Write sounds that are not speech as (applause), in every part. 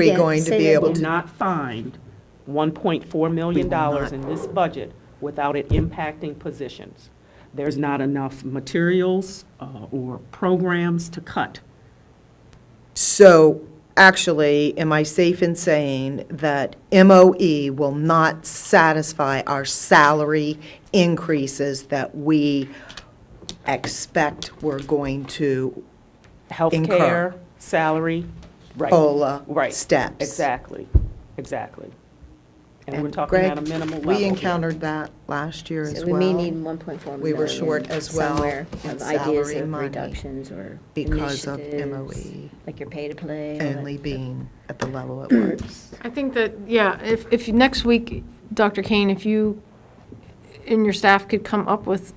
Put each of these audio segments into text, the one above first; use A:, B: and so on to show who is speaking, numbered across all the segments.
A: we
B: Yeah,
A: going to
B: say
A: be
B: that
A: able
B: again.
A: to?
C: not find $1.4 million in this budget without it impacting positions. There's not enough materials uh, or programs to cut.
A: So actually, am I safe in saying that MOE will not satisfy our salary increases that we expect we're going to
C: Healthcare,
A: Incur.
C: salary, right.
A: COLA
C: Right.
A: steps?
C: Exactly, exactly. And we're
A: And
C: talking
A: Greg,
C: at a minimal level.
A: we
C: here.
A: encountered that last year as
B: So
A: well.
B: we may need 1.4 million.
A: We were short as well
B: somewhere
A: in
B: of ideas
A: salary
B: of
A: money
B: reductions or
A: because of E
B: initiatives,
A: MOE.
B: Like your pay-to-play. all
A: Only
B: that.
A: being at the level it
B: (clears throat)
A: was.
D: I think that, yeah, if, if next week, Dr. Kane, if you and your staff could come up with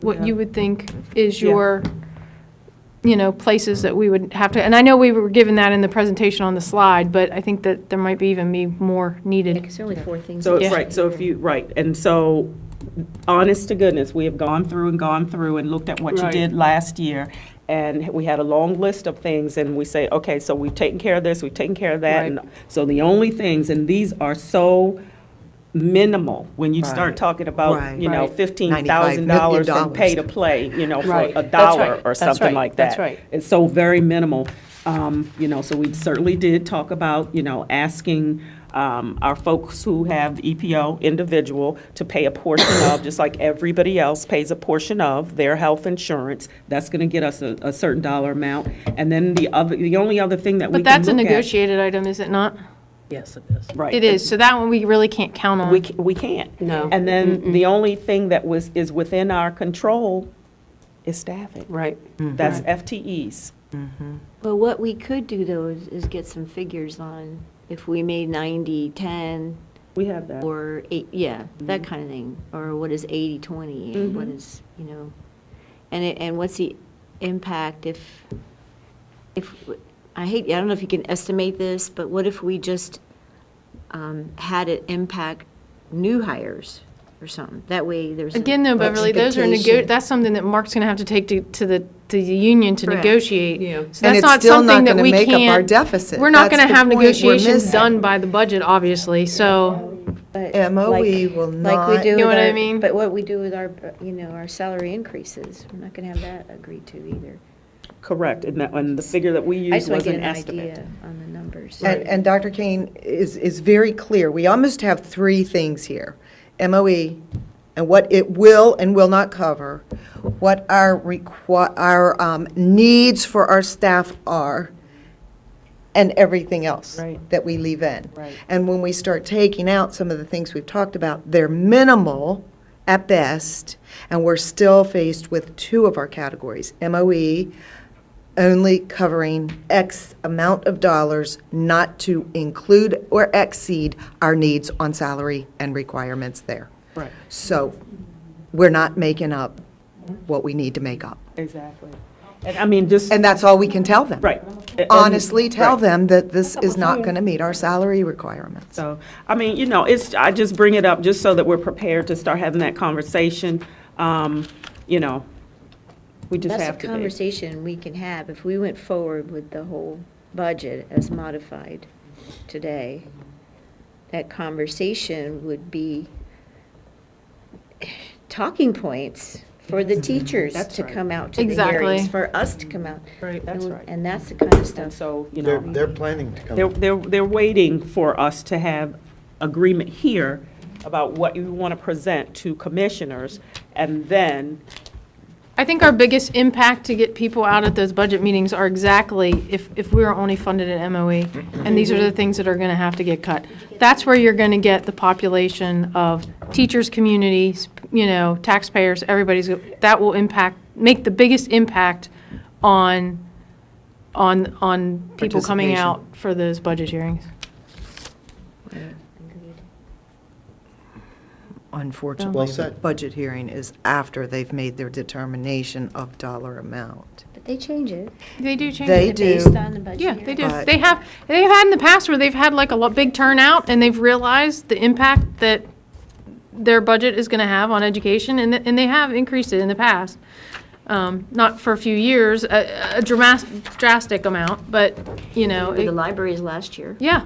D: what you
C: Yeah.
D: would think is
C: Yeah.
D: your, you know, places that we would have to, and I know we were given that in the presentation on the slide, but I think that there might be even be more
B: Yeah,
D: needed.
B: 'cause there are only four things.
C: So,
B: that
C: it's
B: you
C: right,
B: should
C: so if
B: do.
C: you, right, and so, honest to goodness, we have gone through and gone through and looked at what you
E: Right.
C: did last year, and we had a long list of things, and we say, okay, so we've taken care of this, we've taken care of that, and so the only things, and these are so minimal, when you
A: Right.
C: start talking about,
A: Right.
C: you know,
E: Right.
C: fifteen thousand dollars
A: $95
C: from pay to play, you know, for
E: Right.
C: a
E: That's right.
C: dollar or
E: That's
C: something
E: right.
C: like that.
E: That's right.
C: It's so very minimal. Um, You know, so we certainly did talk about, you know, asking um, our folks who have EPO individual to pay a portion of, just like everybody else pays a portion of their health insurance. That's going to get us a a certain dollar amount. And then the other, the only other thing that we
D: But
C: can
D: that's a
C: look at.
D: negotiated item, is it not?
E: Yes, it is.
C: Right.
D: It is, so that one we really can't count
C: We,
D: on.
C: ca- we can't.
E: No.
C: And then the only thing that was, is within our control is staffing.
E: Mm-hmm. Right.
C: That's FTEs.
F: Well, what we could do though is, is get some figures on if we made 90, 10,
C: We have that.
F: or eight, yeah, that
D: Mm-hmm.
F: kind of thing. Or what is 80, 20, and what is, you know, and it, and what's the impact if, if, I hate, I don't know if you can estimate this, but what if we just um, had it impact new hires or something? That way there's. a-
D: Again, though, Beverly, those are, nego.
F: Education.
D: that's something that Mark's going to have to take to, to the, to the union to
F: Correct.
D: negotiate.
E: Yeah.
D: So that's not something that
A: And it's still not going
D: we
A: to make up our
D: can't.
A: deficit.
D: We're
A: That's
D: not going to
A: the
D: have
A: point we're
D: negotiations
A: missing.
D: done by the budget, obviously, so,
B: But
A: MOE
B: like-
A: E will
B: Like we
A: not-
B: do
D: You know
B: with
D: what I
B: our-
D: mean?
B: But what we do with our, you know, our salary increases, we're not going to have that agreed to either.
C: Correct, and that, and the figure that we
B: I
C: used
B: just want
C: was
B: to get
C: an
B: an
C: estimate.
B: idea on the numbers.
A: And, and Dr. Kane is, is very clear. We almost have three things here. MOE and what it will and will not cover, what our requi, our um, needs for our staff are, and everything else
C: Right.
A: that we leave in.
C: Right.
A: And when we start taking out some of the things we've talked about, they're minimal at best, and we're still faced with two of our categories, MOE only covering X amount of dollars not to include or exceed our needs on salary and requirements there.
C: Right.
A: So we're not making up what we need to make up.
C: Exactly. And I mean, just,
A: And that's all we can tell them.
C: right. And-
A: Honestly, tell
C: right.
A: them that this is not going to meet our salary requirements.
C: So, I mean, you know, it's, I just bring it up just so that we're prepared to start having that conversation. Um, You know, we just have
B: That's
C: to
B: a
C: be.
B: conversation we can have if we went forward with the whole budget as modified today. That conversation would be talking points for
C: (laughs)
B: the teachers
C: That's
B: to
C: right.
B: come out to the
D: Exactly.
B: hearings, for us to come out.
C: Right, that's
B: And-
C: right.
B: And that's the kind of
C: And
B: stuff.
C: so, you
G: They're,
C: know,
G: they're planning to
C: they're,
G: come.
C: they're, they're waiting for us to have agreement here about what you want to present to commissioners, and then
D: I think our biggest impact to get people out at those budget meetings are exactly if, if we are only funded at MOE, E, and these are the things that are going to have to get cut. That's where you're going to get the population of teachers, communities, you know, taxpayers, everybody's, that will impact, make the biggest impact on, on, on people coming out for those budget hearings.
A: Unfortunately,
G: Well
A: the
G: said.
A: budget hearing is after they've made their determination of dollar amount.
B: But they change it.
D: They do change
A: They do.
B: Based on the budget.
D: Yeah, they do.
A: But-
D: They have, they've had in the past where they've had like a lo- big turnout and they've realized the impact that their budget is going to have on education and, th- and they have increased it in the past. um, not for a few years, a, a dramas- drastic amount, but, you know,
B: The
D: it-
B: libraries last year.
D: yeah.